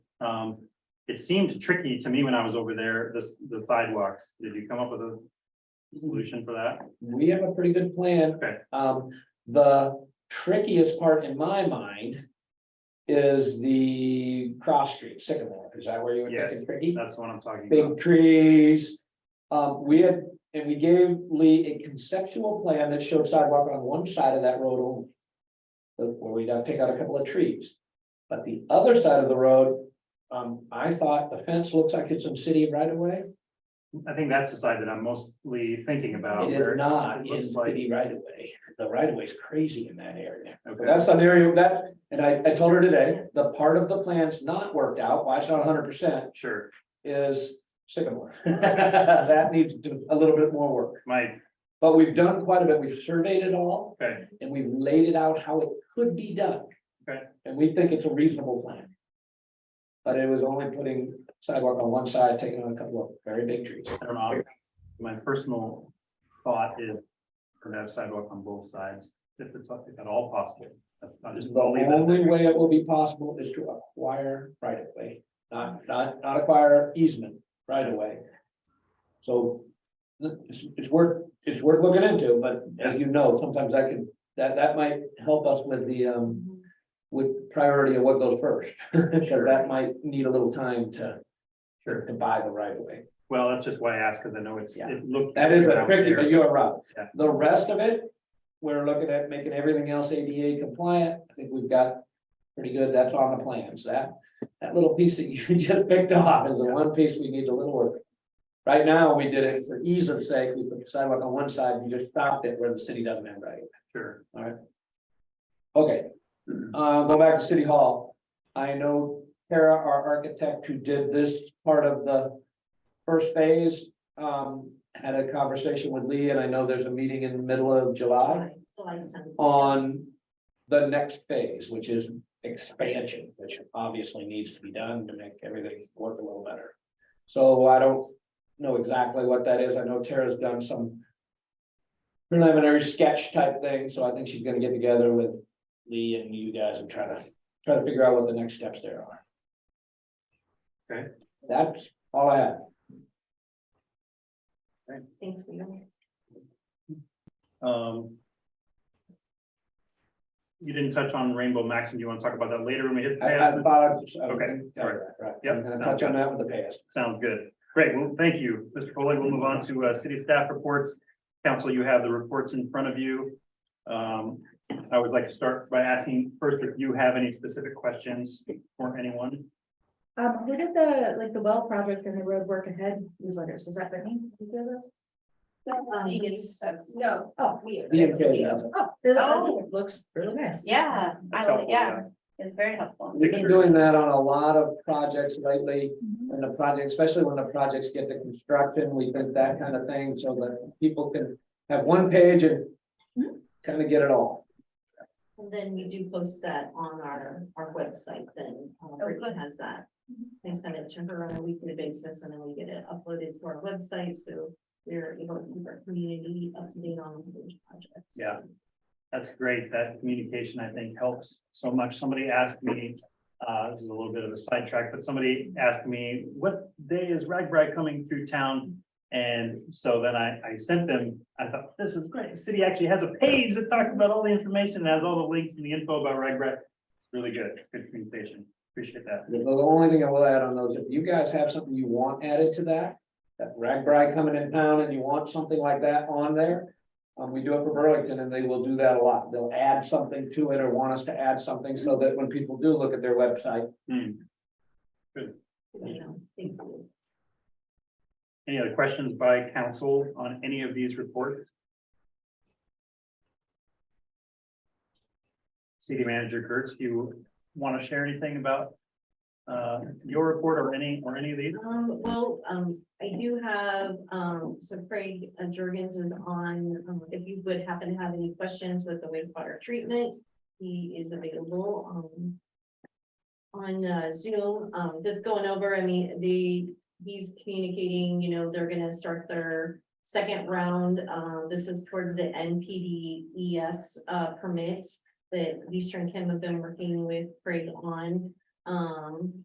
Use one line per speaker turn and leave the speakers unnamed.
Um, it seemed tricky to me when I was over there, this, the sidewalks. Did you come up with a solution for that?
we have a pretty good plan.
Okay.
Um, the trickiest part in my mind. Is the cross street sycamore, is that where you would think
Yes.
it's tricky?
That's what I'm talking about.
Big trees. Um, we had, and we gave Lee a conceptual plan that showed sidewalk on one side of that road only. the- Where we got to take out a couple of trees. But the other side of the road, um, I thought the fence looks like it's in city right away.
I think that's the side that I'm mostly thinking about.
Uh, It
where
is not
it
in
looks like-
city right away. The right of way is crazy in that area. But
Okay,
That's an area that, and I, I told her today, the part of the plan's not worked out, why it's not hundred percent,
sure.
is Sycamore. That needs to do a little bit more work,
My,
but we've done quite a bit, we've surveyed it all,
okay,
and we've laid it out how it could be done.
Okay.
And we think it's a reasonable plan. But it was only putting sidewalk on one side, taking on a couple of very big trees.
I don't know. My personal thought is to have sidewalk on both sides, if it's, if at all possible. I'll just
The
leave that.
only way it will be possible is to acquire right of way, not, not, not acquire easement right of way. So it's, it's worth, it's worth looking into, but as you know, sometimes that can, that, that might help us with the, um, with priority of what goes first. So that might need a little time to,
Sure.
to buy the right of way.
Well, that's just why I asked, because I know it's,
Yeah.
it looked.
That is a tricky, but you are right.
Yeah.
The rest of it, we're looking at making everything else ADA compliant. I think we've got pretty good, that's on the plans. That, that little piece that you just picked off is the one piece we need a little work. Right now, we did it for ease of sake. We put the sidewalk on one side, and you just stopped it where the city doesn't have right.
Sure.
Okay, uh, go back to City Hall. I know Kara, our architect who did this part of the first phase, um, had a conversation with Lee, and I know there's a meeting in the middle of July
July 10th.
on the next phase, which is expansion, which obviously needs to be done to make everything work a little better. So I don't know exactly what that is. I know Tara's done some preliminary sketch type thing, so I think she's gonna get together with Lee and you guys and try to, try to figure out what the next steps there are.
Okay.
That's all I have.
Thanks, Leo.
Um. You didn't touch on Rainbow Max, and you want to talk about that later when we hit. the
I, I
past?
thought.
Okay, sorry.
Right,
Yep,
I'm gonna touch on that with the past.
Sounds good. Great. Well, thank you, Mr. Foley. We'll move on to uh, city staff reports. Council, you have the reports in front of you. Um, I would like to start by asking first if you have any specific questions for anyone.
Um, who did the, like, the well project and the road work ahead newsletters, is that Brittany? Did you do those? Um,
No,
Oh, we.
Yeah, okay, yeah.
Oh, they're the-
Oh.
looks really nice.
yeah,
That's
I,
helpful,
like- yeah, it's very helpful.
We've been
Picture.
doing that on a lot of projects lately,
Mhm.
and the project, especially when the projects get to construction, we think that kind of thing, so that people can have one page and kind of get it all.
And then we do post that on our, our website, then uh, Brittany has that. I send it to her on a weekly basis and then we get it uploaded to our website, so we're able to keep our community up to date on those projects.
Yeah. That's great. That communication, I think, helps so much. Somebody asked me, uh, this is a little bit of a sidetrack, but somebody asked me, what day is Ragbri coming through town? And so then I, I sent them, I thought, this is great. The City actually has a page that talks about all the information, has all the links and the info about Ragbri. It's really good. It's good communication. Appreciate that.
The, the only thing I will add on those, if you guys have something you want added to that, that ragbri coming in town and you want something like that on there, um, we do it for Burlington and they will do that a lot. They'll add something to it or want us to add something so that when people do look at their website,
Hmm.
You know, thank you.
Any other questions by council on any of these reports? City Manager Kurtz, do you want to share anything about uh, your report or any, or any of these?
Um, well, um, I do have, um, so Craig uh, Jurgens is on, um, if you would happen to have any questions with the wastewater treatment, he is available, um. On uh, Zoom, um, just going over, I mean, the, he's communicating, you know, they're gonna start their second round, uh, this is towards the NPDES, uh, permits that Eastern Kim have been working with Craig on. Um,